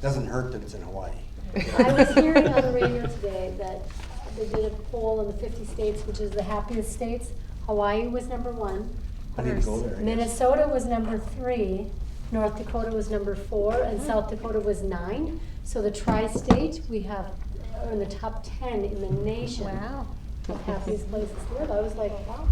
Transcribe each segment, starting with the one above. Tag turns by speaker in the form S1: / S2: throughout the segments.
S1: Doesn't hurt that it's in Hawaii.
S2: I was hearing on the radio today that they did a poll of the 50 states, which is the happiest states. Hawaii was number one.
S1: I didn't go there. I guess.
S2: Minnesota was number three. North Dakota was number four, and South Dakota was nine. So the tri-state, we have, are in the top 10 in the nation. Wow. Of happiest places to live. I was like, wow.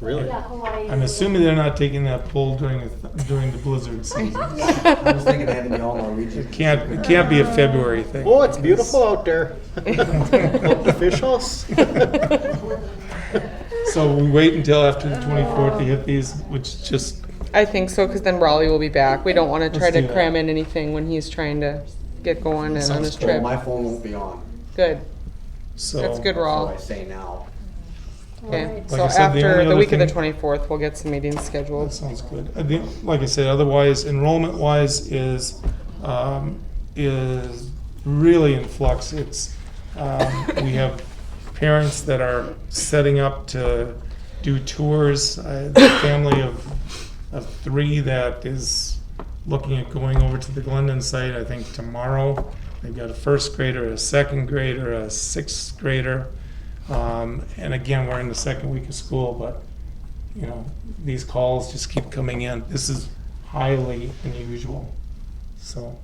S3: Really?
S2: Yeah, Hawaii. is-
S4: I'm assuming they're not taking that poll during the th- during the blizzard season.
S1: I was thinking of having the all Norwegian.
S4: It can't it can't be a February thing.
S3: Oh, it's beautiful out there. Up the fish house.
S4: So we wait until after the 24th to hit these, which just
S5: I think so, because then Raleigh will be back. We don't want to try
S4: Let's
S5: to
S4: do that.
S5: cram in anything when he's trying to get going and on his
S1: So
S5: trip.
S1: My phone won't be on,
S5: Good.
S4: so
S5: That's good,
S1: so
S5: Rawl.
S1: I say now.
S5: Okay.
S4: Like
S5: So
S4: I said, the only
S5: after the
S4: other
S5: week of the
S4: thing-
S5: 24th, we'll get some meetings
S4: That
S5: scheduled.
S4: sounds good. I think, like I said, otherwise enrollment wise is um, is really in flux. It's um, we have parents that are setting up to do tours. I have a family of of three that is looking at going over to the Glendon site. I think tomorrow they've got a first grader, a second grader, a sixth grader. Um, and again, we're in the second week of school, but you know, these calls just keep coming in. This is highly unusual. So,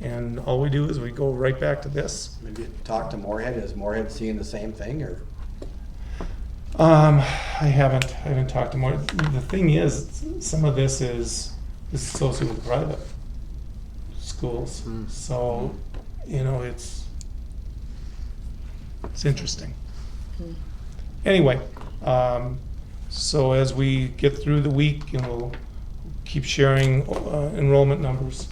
S4: and all we do is we go right back to this.
S1: Maybe talk to Morehead, is Morehead seeing the same thing, or?
S4: Um, I haven't, I haven't talked to more. The thing is, some of this is, this is associated with private schools.
S3: Hmm.
S4: So, you know, it's, it's interesting. Anyway, um, so as we get through the week, and we'll keep sharing uh, enrollment numbers.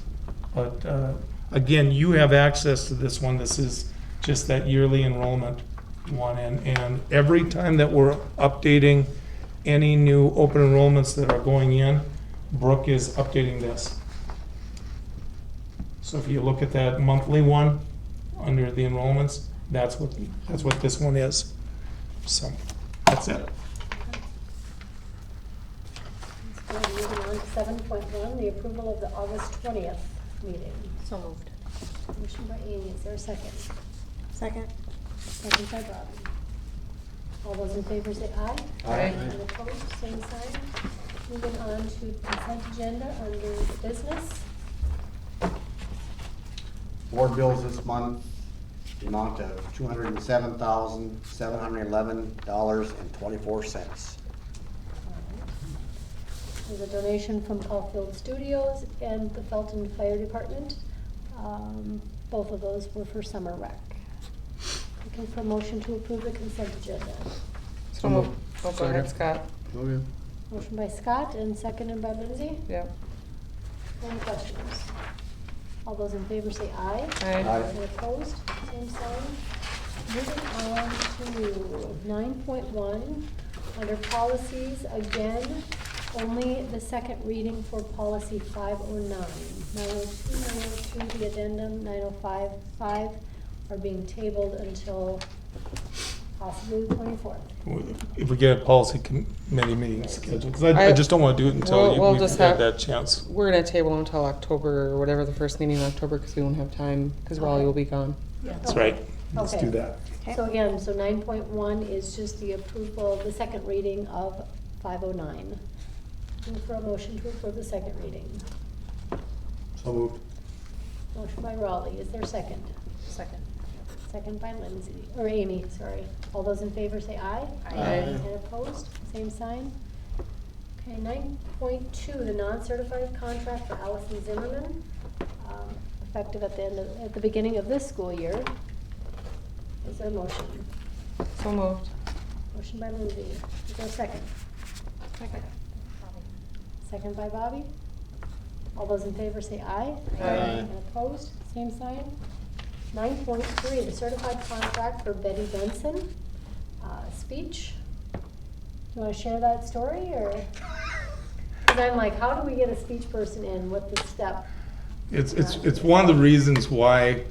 S4: But uh, again, you have access to this one. This is just that yearly enrollment one. And, and every time that we're updating any new open enrollments that are going in, Brooke is updating this. So if you look at that monthly one, under the enrollments, that's what, that's what this one is. So, that's it.
S2: So Moving on to 7.1, the approval of the August 20th meeting.
S6: So moved.
S2: Motion by Amy, is there a second?
S6: Second.
S2: Second by Robin. All those in favor say aye.
S1: Aye.
S2: And opposed, same sign. Moving on to consent agenda under business.
S1: Board bills this month, the amount of two hundred and seven thousand, seven hundred and eleven dollars and twenty-four cents.
S2: There's a donation from Caulfield Studios and the Felton Fire Department. Um, Both of those were for summer rec. Looking for a motion to approve the consent agenda.
S5: So moved. Oh, go ahead, Scott.
S3: Okay.
S2: Motion by Scott and seconded by Lindsay.
S5: Yep.
S2: Any questions? All those in favor say aye.
S5: Aye.
S2: Any opposed? Same sign. Moving on to nine point one, under policies, again, only the second reading for policy five oh nine. Nine oh two, nine oh two, the addendum, nine oh five, five are being tabled until possibly the twenty-fourth.
S4: If we get a policy committee meeting scheduled, 'cause I, I
S5: I-
S4: just don't wanna do it
S5: We'll-
S4: until you-
S5: we'll
S4: we've
S5: just
S4: had
S5: have-
S4: that chance.
S5: We're gonna table until October or whatever the first meeting in October, because we won't have time, because Raleigh will be gone.
S4: That's right. Let's
S2: Okay.
S4: do that.
S2: So again, so nine point one is just the approval, the second reading of five oh nine. Move for a motion to approve the second reading.
S1: So moved.
S2: Motion by Raleigh, is there a second?
S6: Second.
S2: Second by Lindsay, or Amy, sorry. All those in favor say aye.
S6: Aye.
S3: Aye.
S2: And opposed, same sign. Okay, nine point two, the non-certified contract for Allison Zimmerman, um, effective at the end of, at the beginning of this school year. Is there a motion?
S5: So moved.
S2: Motion by Lindsay, is there a second?
S6: Second.
S2: Second by Bobby. All those in favor say aye.
S5: Aye.
S2: And opposed, same sign. Nine point three, the certified contract for Betty Benson, uh, speech. Do you wanna share that story, or? Cause I'm like, how do we get a speech person in with the step?
S4: It's, it's, it's one of the reasons why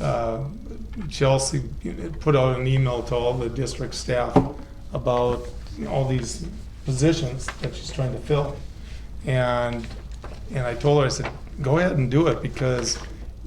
S4: uh, Chelsea put out an email to all the district staff about all these positions that she's trying to fill. And, and I told her, I said, go ahead and do it because